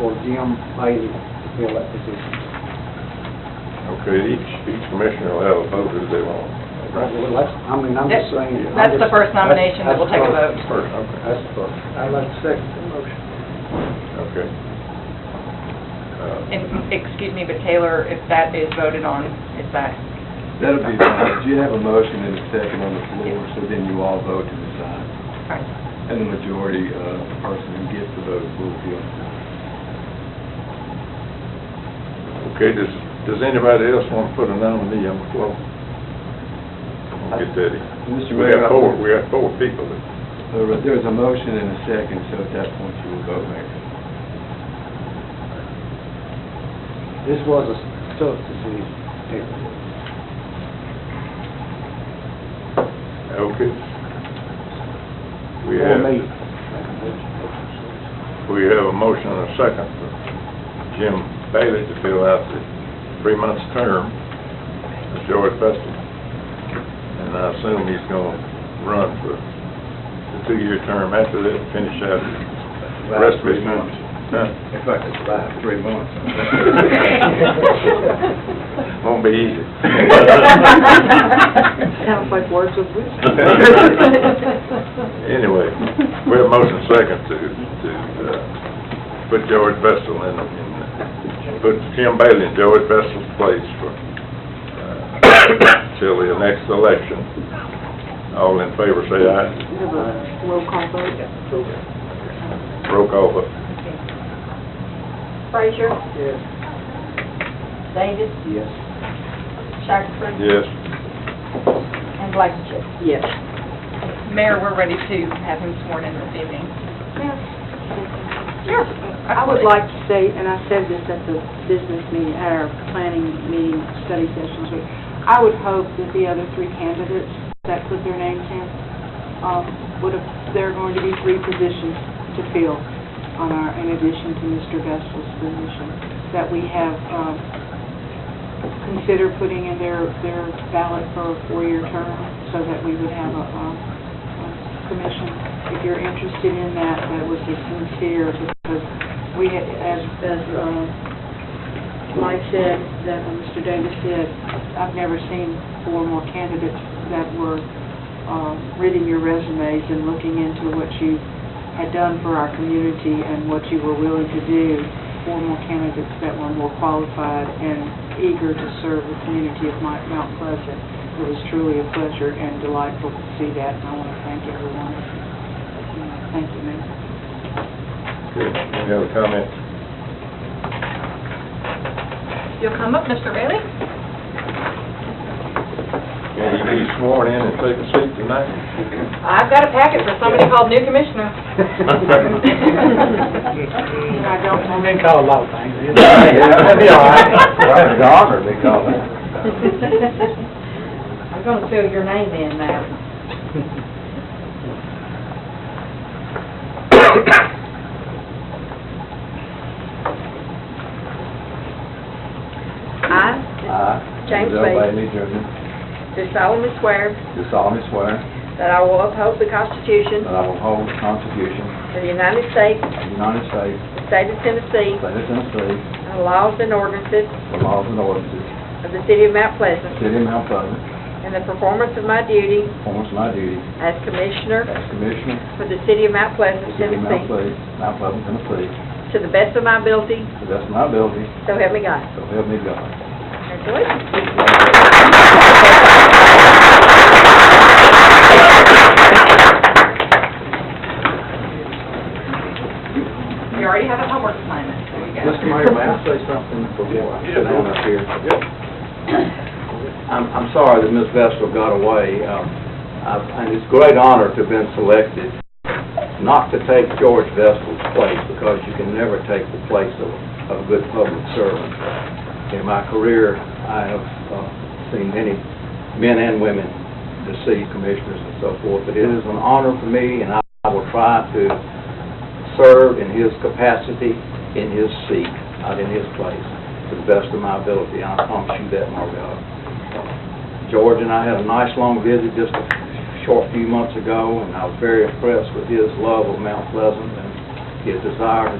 for Jim Bailey to fill that position. Okay, each, each commissioner will have a vote if they want. Well, that's, I mean, I'm just saying. I That's the just- first nomination that will take a that's- vote. that's the first. That's the First, okay. first. I'd like to second the motion. Okay. Uh, And, excuse me, but Taylor, if that is voted on, is that, That'll be fine. You have a motion and a second on the floor, so then you all vote to decide. And the majority, uh, person who gets the vote will be on. Uh, Okay, does, does anybody else want to put a nominee on the floor? I'll Get that in. Mr. We Mayor, got I- four, we got four people that, Uh, There's a motion and a second, so at that point you will vote, Mayor. This was a tough decision. Taylor. okay. We For have, me. we have a motion and a second for Jim Bailey to fill out the three months term of George Festival. And I assume he's gonna run for the two-year term after that, finish out the rest of his term. Huh? If I could survive three months. Won't be easy. Sounds like words of wisdom. Anyway, we have motion second to, to, uh, put George Vessel in, in, put Jim Bailey in George Vessel's place for, uh, till the next election. All in favor, say aye. We have a Roll call vote. Roll call vote. Frazier, Yes. Davis, Yes. Shackelford, Yes. and Blankenship. Yes. Mayor, we're ready to have him sworn in this evening. Sure. I would like to say, and I said this at the business meeting, at our planning meeting, study sessions, week, I would hope that the other three candidates that put their names in, um, would have, there are going to be three positions to fill on our, in addition to Mr. Vestal's position, that we have, um, considered putting in their, their ballot for a four-year term, so that we would have a, um, a commission. If you're interested in that, that would be sincere, because we, had- as, as, um, Mike said, that Mr. Davis said, I've never seen four more candidates that were, um, reading your resumes and looking into what you had done for our community and what you were willing to do. Four more candidates that were more qualified and eager to serve the community of Mount Mount Pleasant. It was truly a pleasure and delightful to see that, and I want to thank everyone. Thank you, Mayor. Okay, any other comments? You'll come up, Mr. Bailey? Can you be sworn in and take a seat tonight? I've got a packet for somebody called new commissioner. I don't I've want been called a lot of things. That'd be all right. That's an honor, they call it. I'm gonna fill your name in now. I, I, James Denzel Bailey. Bailey, Jr., do solemnly swear do solemnly swear that I will uphold the Constitution that I will hold the Constitution of the United States, of the United States, the state of Tennessee, the state of Tennessee, and the laws and ordinances the laws and ordinances of the city of Mount of the Pleasant, city of Mount Pleasant, and the performance of my duty performance of my duty as Commissioner as Commissioner for the city of Mount of the Pleasant, city of Mount Tennessee, Pleasant, Mount Pleasant, Tennessee, to the best of my ability, to the best of my ability, so help me God. so help me God. Congratulations. We already have a homework assignment, there you go. Mr. Mayor, may I say something before I sit down up here? I'm, I'm sorry that Ms. Vestal got away, um, I- and it's a great honor to have been selected, not to take George Vestal's place, because you can never take the place of, of a good public servant. In my career, I have uh, seen many men and women, the city commissioners and so forth, but it is an honor for me, and I I will try to serve in his capacity, in his seat, not in his place, to the best of my ability, and I promise you that, Marvell. George and I had a nice long visit just a short few months ago, and I was very impressed with his love of Mount Pleasant and his desire to